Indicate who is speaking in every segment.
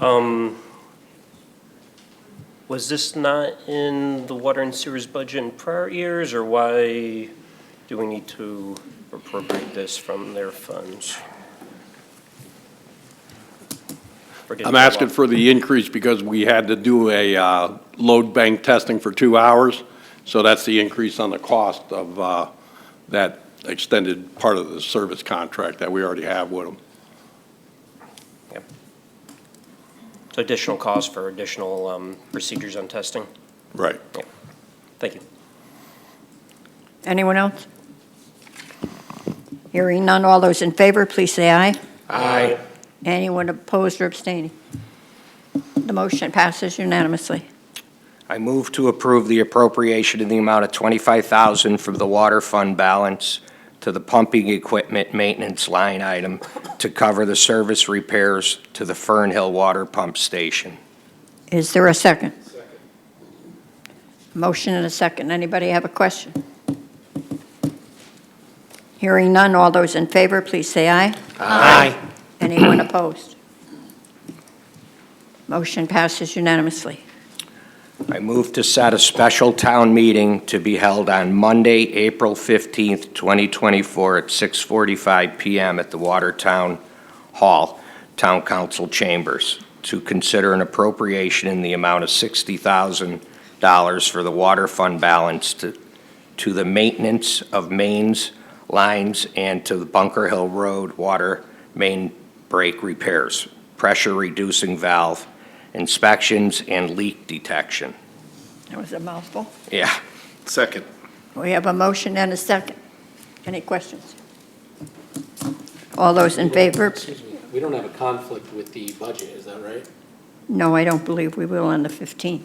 Speaker 1: Um, Was this not in the water and sewers budget in prior years, or why do we need to appropriate this from their funds? Forget
Speaker 2: I'm
Speaker 1: the
Speaker 2: asking
Speaker 1: law.
Speaker 2: for the increase because we had to do a uh, load bank testing for two hours, so that's the increase on the cost of uh, that extended part of the service contract that we already have with them.
Speaker 1: So Additional cost for additional um, procedures on testing?
Speaker 2: Right.
Speaker 1: Thank you.
Speaker 3: Anyone else? Hearing none, all those in favor, please say aye.
Speaker 1: Aye.
Speaker 3: Anyone opposed or abstaining? The motion passes unanimously.
Speaker 4: I move to approve the appropriation in the amount of $25,000 from the water fund balance to the pumping equipment maintenance line item to cover the service repairs to the Fernhill Water Pump Station.
Speaker 3: Is there a second? Motion and a second. Anybody have a question? Hearing none, all those in favor, please say aye.
Speaker 4: Aye.
Speaker 3: Anyone opposed? Motion passes unanimously.
Speaker 4: I move to set a special town meeting to be held on Monday, April 15th, 2024, at 6:45 PM at the Watertown Hall, Town Council Chambers, to consider an appropriation in the amount of $60,000 for the water fund balance to to the maintenance of mains, lines, and to the Bunker Hill Road water main break repairs, pressure-reducing valve, inspections, and leak detection.
Speaker 3: That was a mouthful.
Speaker 4: Yeah.
Speaker 5: Second.
Speaker 3: We have a motion and a second. Any questions? All those in favor?
Speaker 6: Excuse me, we don't have a conflict with the budget, is that right?
Speaker 3: No, I don't believe we will on the 15th.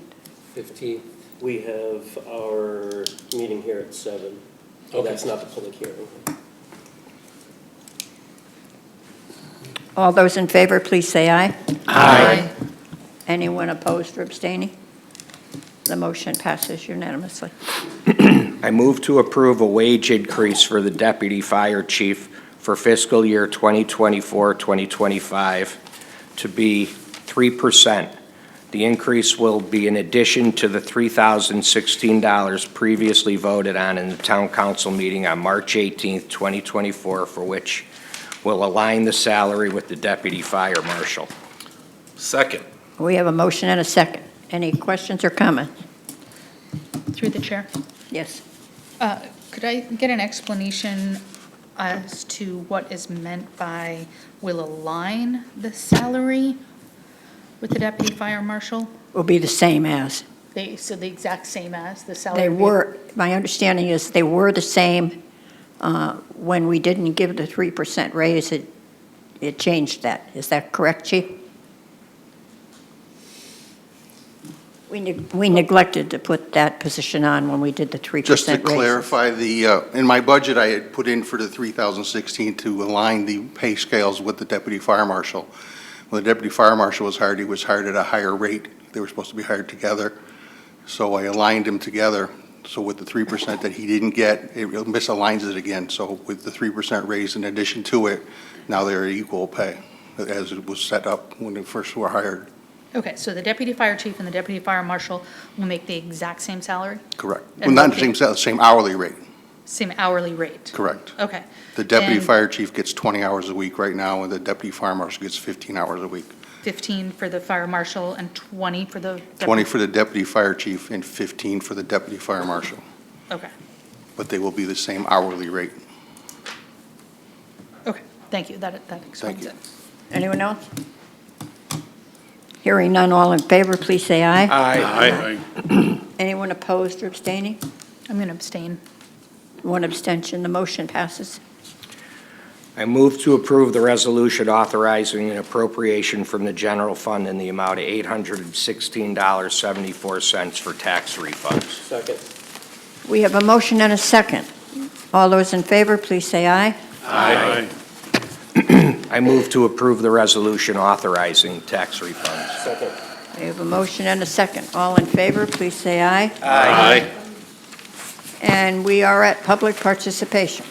Speaker 6: 15?
Speaker 1: We have our meeting here at seven. Oh, that's not the public hearing.
Speaker 3: All those in favor, please say aye.
Speaker 4: Aye.
Speaker 3: Anyone opposed or abstaining? The motion passes unanimously.
Speaker 4: I move to approve a wage increase for the deputy fire chief for fiscal year 2024, 2025 to be 3%. The increase will be in addition to the $3,016 previously voted on in the town council meeting on March 18th, 2024, for which will align the salary with the deputy fire marshal.
Speaker 5: Second.
Speaker 3: We have a motion and a second. Any questions or comments?
Speaker 7: Through the chair.
Speaker 3: Yes.
Speaker 7: Uh, Could I get an explanation as to what is meant by will align the salary with the deputy fire marshal?
Speaker 3: Will be the same as.
Speaker 7: They, so the exact same as the salary?
Speaker 3: They
Speaker 7: would be-
Speaker 3: were, my understanding is they were the same uh, when we didn't give the 3% raise. It, it changed that. Is that correct, Chief? We neg- we neglected to put that position on when we did the 3% raise.
Speaker 8: Just to clarify, the, uh, in my budget, I had put in for the 3,016 to align the pay scales with the deputy fire marshal. When the deputy fire marshal was hired, he was hired at a higher rate. They were supposed to be hired together. So I aligned them together. So with the 3% that he didn't get, it misaligns it again. So with the 3% raise in addition to it, now they're equal pay, as it was set up when they first were hired.
Speaker 7: Okay, so the deputy fire chief and the deputy fire marshal will make the exact same salary,
Speaker 8: Correct. Well,
Speaker 7: And
Speaker 8: not the
Speaker 7: what
Speaker 8: same, sal- same hourly rate,
Speaker 7: same hourly rate?
Speaker 8: correct.
Speaker 7: Okay,
Speaker 8: The deputy
Speaker 7: And-
Speaker 8: fire chief gets 20 hours a week right now, and the deputy fire marshal gets 15 hours a week.
Speaker 7: 15 for the fire marshal and 20 for the? deputy-
Speaker 8: 20 for the deputy fire chief and 15 for the deputy fire marshal,
Speaker 7: Okay,
Speaker 8: but they will be the same hourly rate.
Speaker 7: okay, thank you, that, that explains
Speaker 8: you.
Speaker 7: it.
Speaker 3: Anyone else? Hearing none, all in favor, please say aye.
Speaker 2: Aye.
Speaker 3: Anyone opposed or abstaining?
Speaker 7: I'm going to abstain.
Speaker 3: One abstention, the motion passes.
Speaker 4: I move to approve the resolution authorizing an appropriation from the general fund in the amount of $816.74 for tax refunds.
Speaker 6: Second.
Speaker 3: We have a motion and a second. All those in favor, please say aye.
Speaker 2: Aye.
Speaker 4: I move to approve the resolution authorizing tax refunds.
Speaker 6: Second.
Speaker 3: We have a motion and a second. All in favor, please say aye.
Speaker 5: Aye.
Speaker 3: And we are at public participation.